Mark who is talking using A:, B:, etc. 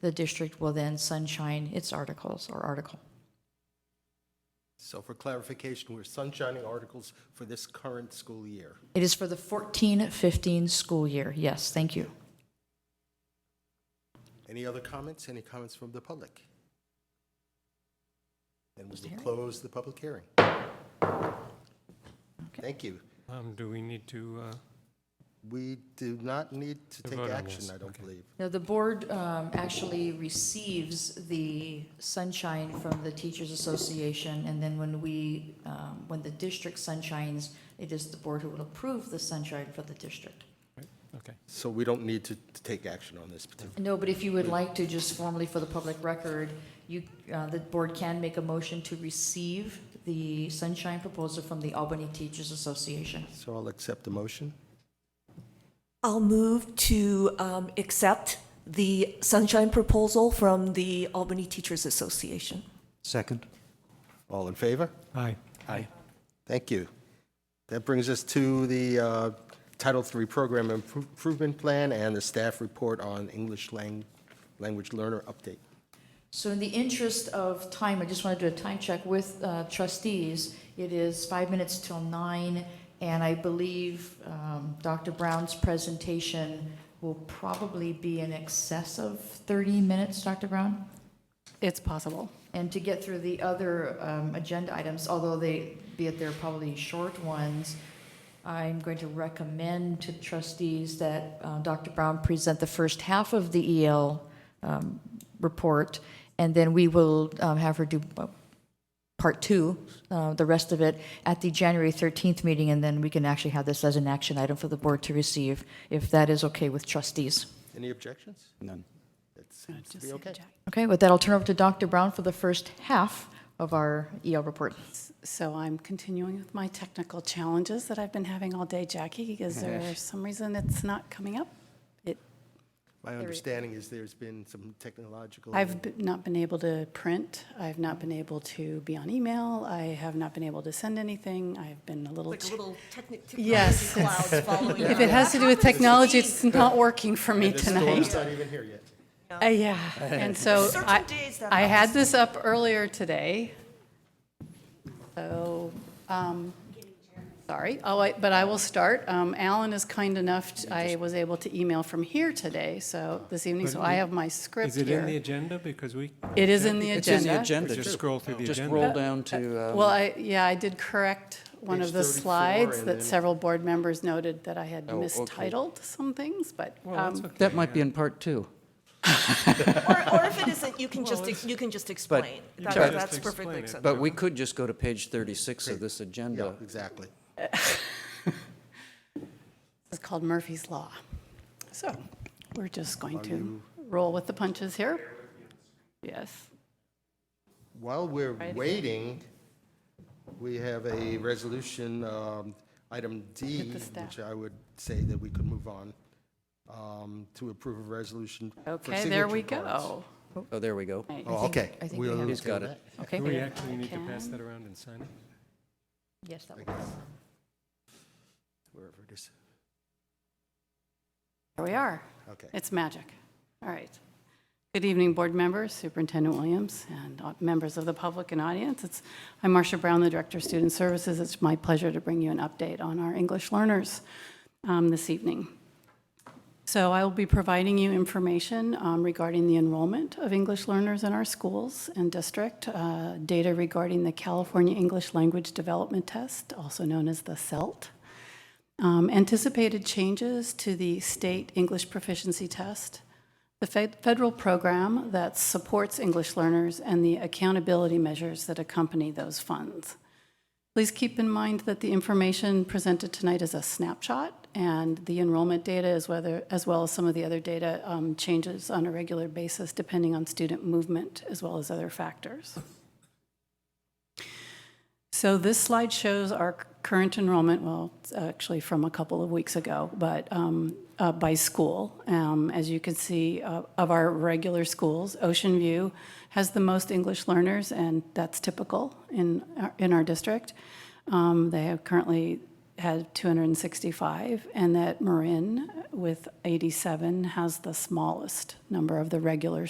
A: The district will then sunshine its articles or article.
B: So for clarification, we're sunshining articles for this current school year.
A: It is for the 14-15 school year. Yes, thank you.
B: Any other comments? Any comments from the public? Then we will close the public hearing. Thank you.
C: Um, do we need to, uh,
B: We do not need to take
C: vote on
B: action,
C: this,
B: I don't
C: okay.
B: believe.
A: Now, the board um, actually receives the sunshine from the Teachers Association, and then when we, um, when the district sunshines, it is the board who will approve the sunshine for the district.
C: okay.
B: So we don't need to to take action on this particular.
A: No, but if you would like to, just formally for the public record, you, uh, the board can make a motion to receive the sunshine proposal from the Albany Teachers Association.
B: So I'll accept the motion.
D: I'll move to um, accept the sunshine proposal from the Albany Teachers Association.
E: Second.
B: All in favor?
C: Aye.
E: Aye.
B: Thank you. That brings us to the uh, Title III Program Impro- Improvement Plan and the staff report on English lang- language learner update.
A: So in the interest of time, I just want to do a time check with uh, trustees. It is five minutes till nine, and I believe um, Dr. Brown's presentation will probably be in excess of 30 minutes, Dr. Brown?
F: It's possible.
A: And to get through the other um, agenda items, although they, be it they're probably short ones, I'm going to recommend to trustees that uh, Dr. Brown present the first half of the E EL um, report, and then we will um, have her do uh, part two, uh, the rest of it, at the January 13th meeting, and then we can actually have this as an action item for the board to receive, if that is okay with trustees.
B: Any objections?
E: None.
B: That seems to be okay.
A: Okay, with that, I'll turn over to Dr. Brown for the first half of our EL report.
F: So I'm continuing with my technical challenges that I've been having all day, Jackie. Is there some reason it's not coming up? It,
B: My understanding is there's been some technological.
F: I've b- not been able to print. I've not been able to be on email. I have not been able to send anything. I've been a little.
G: Like a
F: ch-
G: little technic,
F: Yes.
G: technology clouds following.
F: If it has to do with technology, it's not working for me
B: The storm's
F: tonight.
B: not even here yet.
F: Uh, Yeah, and so
G: Certain
F: I,
G: days that
F: I had
G: happens.
F: this up earlier today. So, um, sorry, oh, I- but I will start. Um, Alan is kind enough, t- I was able to email from here today, so, this evening, so I have my script
C: Is it in the
F: here.
C: agenda? Because we.
F: It is in the
E: It's in
F: agenda.
E: the agenda.
C: Just scroll through the
E: Just
C: agenda.
E: roll down to,
F: Well,
E: um,
F: I, yeah, I did correct one
B: Page
F: of the
B: 34
F: slides
B: and then-
F: that several board members noted that I had
E: Oh, okay.
F: mistitled some things, but,
C: Well, that's
F: um,
C: okay,
E: that might be
C: yeah.
E: in part two.
G: Or, or if it isn't, you can just, you can just explain.
E: you
G: That-
E: can
C: just
G: That's
C: explain
G: perfectly
C: it.
G: acceptable.
E: But we could just go to page 36 of this
B: Yeah,
E: agenda.
B: exactly.
F: It's called Murphy's Law. So we're just going to roll with the punches here. Yes.
B: While we're
F: Right.
B: waiting, we have a resolution, um, item D,
F: With the staff.
B: which I would say that we could move on, um, to approve a resolution. for
F: Okay, there we
B: signature cards.
F: go.
E: Oh, there we go.
F: Right.
B: Oh, okay.
A: I think we
B: We'll
A: have-
B: move
E: He's
B: to
E: got
B: that.
E: it.
A: Okay.
C: Do we actually need to
F: can.
C: pass that around and sign it?
A: Yes, that
B: Wherever it is.
F: Here we are.
B: Okay.
F: It's magic. All right. Good evening, board members, Superintendent Williams, and au- members of the public and audience. It's, I'm Marcia Brown, the Director of Student Services. It's my pleasure to bring you an update on our English learners um, this evening. So I will be providing you information um, regarding the enrollment of English learners in our schools and district, uh, data regarding the California English Language Development Test, also known as the CELT, um, anticipated changes to the state English proficiency test, the fed- federal program that supports English learners, and the accountability measures that accompany those funds. Please keep in mind that the information presented tonight is a snapshot, and the enrollment data is whether, as well as some of the other data, um, changes on a regular basis depending on student movement as well as other factors. So this slide shows our current enrollment, well, it's actually from a couple of weeks ago, but um, uh, by school. Um, As you can see, uh, of our regular schools, Ocean View has the most English uh, learners, and that's typical in, our- in our district. Um, They have currently had 265, and that Marin with 87 has the smallest number of the regular